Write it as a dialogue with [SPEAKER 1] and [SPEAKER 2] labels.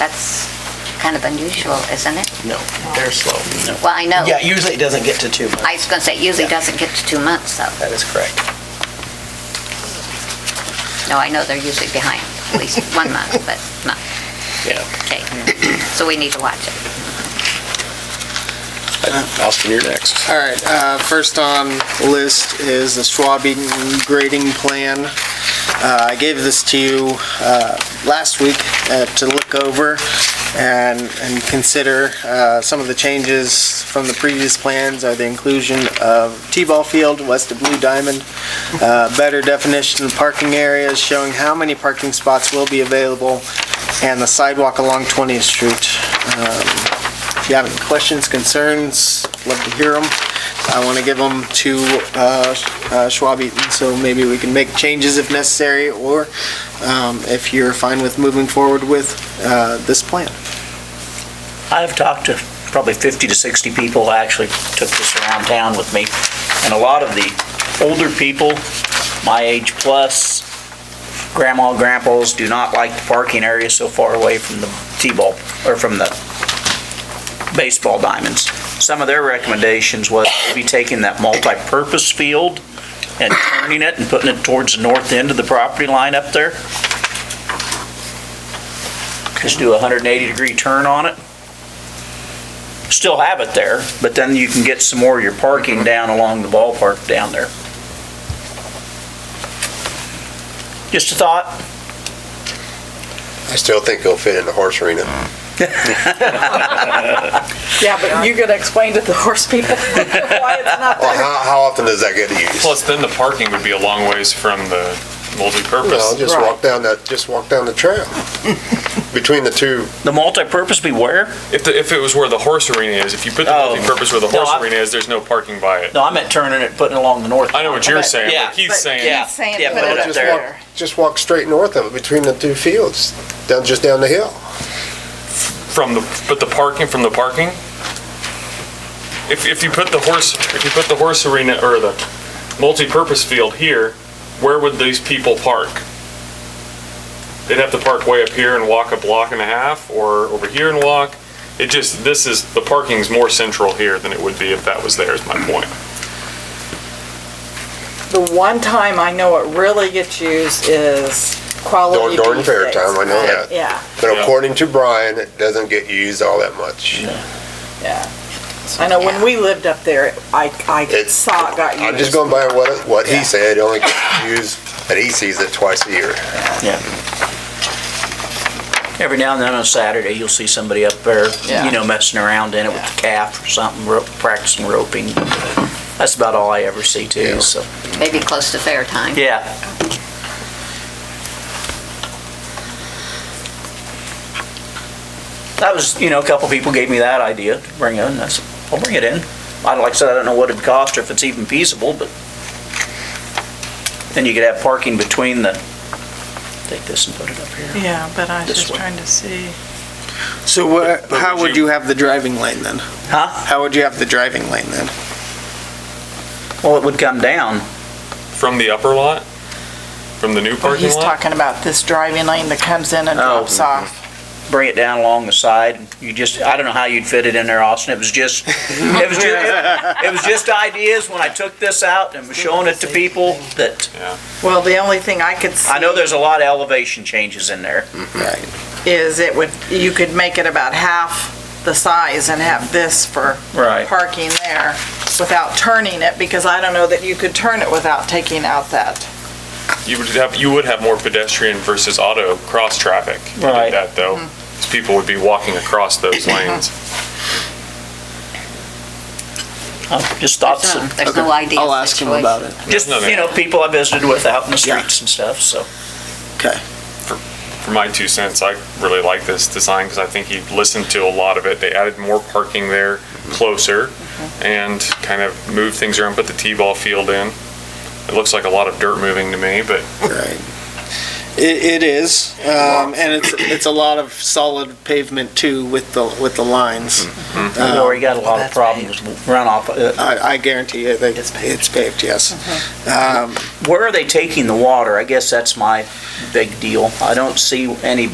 [SPEAKER 1] That's kind of unusual, isn't it?
[SPEAKER 2] No, they're slow.
[SPEAKER 1] Well, I know.
[SPEAKER 2] Yeah, usually it doesn't get to two months.
[SPEAKER 1] I was going to say, it usually doesn't get to two months, though.
[SPEAKER 2] That is correct.
[SPEAKER 1] No, I know they're usually behind, at least one month, but not,
[SPEAKER 3] Yeah.
[SPEAKER 1] okay. So we need to watch it.
[SPEAKER 3] Austin, you're next.
[SPEAKER 4] All right, uh, first on the list is the Schwabing grading plan. Uh, I gave this to you, uh, last week, uh, to look over and, and consider, uh, some of the changes from the previous plans are the inclusion of T-ball field west of Blue Diamond, uh, better definition of parking areas showing how many parking spots will be available, and the sidewalk along 20th Street. Um, if you have any questions, concerns, love to hear them. I want to give them to uh, uh, Schwab Eaton, so maybe we can make changes if necessary, or um, if you're fine with moving forward with uh, this plan.
[SPEAKER 5] I've talked to probably 50 to 60 people, I actually took this around town with me, and a lot of the older people, my age plus, grandma, grandpas, do not like the parking area so far away from the T-ball, or from the baseball diamonds. Some of their recommendations was maybe taking that multi-purpose field and turning it and putting it towards the north end of the property line up there. Just do a 180-degree turn on it still have it there, but then you can get some more of your parking down along the ballpark down there. Just a thought.
[SPEAKER 3] I still think it'll fit in the horse arena.
[SPEAKER 6] Yeah, but you gotta explain to the horse people why it's not
[SPEAKER 3] Well,
[SPEAKER 6] there.
[SPEAKER 3] how, how often does that get used?
[SPEAKER 7] Plus, then the parking would be a long ways from the
[SPEAKER 3] Well,
[SPEAKER 7] multi-purpose.
[SPEAKER 3] just walk down that, just walk down the trail. Between the two,
[SPEAKER 5] The multi-purpose beware?
[SPEAKER 7] If, the- if it was where the horse arena is, if you put the
[SPEAKER 5] Oh.
[SPEAKER 7] multi-purpose where the
[SPEAKER 5] No,
[SPEAKER 7] horse
[SPEAKER 5] I-
[SPEAKER 7] arena is, there's no parking by it.
[SPEAKER 5] No, I meant turning it, putting it along the north.
[SPEAKER 7] I know what you're saying,
[SPEAKER 5] Yeah.
[SPEAKER 7] but Keith's saying.
[SPEAKER 5] Yeah,
[SPEAKER 6] saying
[SPEAKER 5] yeah,
[SPEAKER 6] put
[SPEAKER 5] put
[SPEAKER 6] it
[SPEAKER 5] it
[SPEAKER 6] up
[SPEAKER 5] up
[SPEAKER 3] just
[SPEAKER 5] there.
[SPEAKER 3] walk, just walk straight north of it, between the two fields, down, just down the hill.
[SPEAKER 7] from the, but the parking, from the parking? If, if you put the horse, if you put the horse arena or the multi-purpose field here, where would these people park? They'd have to park way up here and walk a block and a half or over here and walk. It just, this is, the parking's more central here than it would be if that was there is my point.
[SPEAKER 6] The one time I know it really gets used is quality
[SPEAKER 3] During- during
[SPEAKER 6] beef
[SPEAKER 3] fair
[SPEAKER 6] days.
[SPEAKER 3] time, I know that.
[SPEAKER 6] Yeah,
[SPEAKER 3] But
[SPEAKER 7] Yeah.
[SPEAKER 3] according to Brian, it doesn't get used all that much.
[SPEAKER 6] yeah. I know when we lived up there, I, I
[SPEAKER 3] It's-
[SPEAKER 6] saw it got used.
[SPEAKER 3] I'm just going by what, what he
[SPEAKER 6] Yeah.
[SPEAKER 3] said, it only gets used, and he sees it twice a year.
[SPEAKER 5] Every now and then on Saturday, you'll see somebody up there,
[SPEAKER 6] Yeah.
[SPEAKER 5] you know, messing around in it with the calf or something, ro- practicing roping. That's about all I ever see too, so,
[SPEAKER 1] Maybe close to fair time.
[SPEAKER 5] yeah. That was, you know, a couple people gave me that idea to bring in, I said, I'll bring it in. I, like I said, I don't know what it'd cost or if it's even feasible, but then you could have parking between the, take this and put it up here.
[SPEAKER 6] Yeah, but I was
[SPEAKER 5] This
[SPEAKER 6] just
[SPEAKER 5] way.
[SPEAKER 6] trying to see.
[SPEAKER 4] So wha- how would you have the driving lane then?
[SPEAKER 5] Huh?
[SPEAKER 4] How would you have the driving lane then?
[SPEAKER 5] Well, it would come down.
[SPEAKER 7] From the upper lot? From the new
[SPEAKER 6] Well,
[SPEAKER 7] parking
[SPEAKER 6] he's
[SPEAKER 7] lot?
[SPEAKER 6] talking about this driving lane that comes in and
[SPEAKER 5] Oh.
[SPEAKER 6] drops off.
[SPEAKER 5] bring it down along the side. You just, I don't know how you'd fit it in there, Austin. It was just, it was just, it was just ideas when I took this out and was showing it to people that,
[SPEAKER 6] Well, the only thing I could see.
[SPEAKER 5] I know there's a lot of elevation changes in there.
[SPEAKER 4] Right.
[SPEAKER 6] is it would, you could make it about half the size and have this for
[SPEAKER 5] Right.
[SPEAKER 6] parking there without turning it, because I don't know that you could turn it without taking out that.
[SPEAKER 7] You would have, you would have more pedestrian versus auto cross-traffic. if you did
[SPEAKER 5] Right.
[SPEAKER 7] That though, 'cause people would be walking across those lanes.
[SPEAKER 5] Uh, Just thoughts,
[SPEAKER 1] So
[SPEAKER 5] of-
[SPEAKER 1] There's no idea.
[SPEAKER 4] I'll ask him about it.
[SPEAKER 5] just, you know, people I visited with out in the streets and stuff, so.
[SPEAKER 4] Okay.
[SPEAKER 7] for my two cents, I really like this design because I think he listened to a lot of it. They added more parking there, closer, and kind of moved things around, put the T-ball field in. It looks like a lot of dirt moving to me, but
[SPEAKER 4] Right. It, it is, um, and it's, it's a lot of solid pavement too with the, with the lines.
[SPEAKER 5] We've already got a lot of
[SPEAKER 6] That's
[SPEAKER 5] problems with runoff. Uh,
[SPEAKER 4] I, I guarantee you, they, it's paved, yes. Um,
[SPEAKER 5] Where are they taking the water? I guess that's my big deal. I don't see any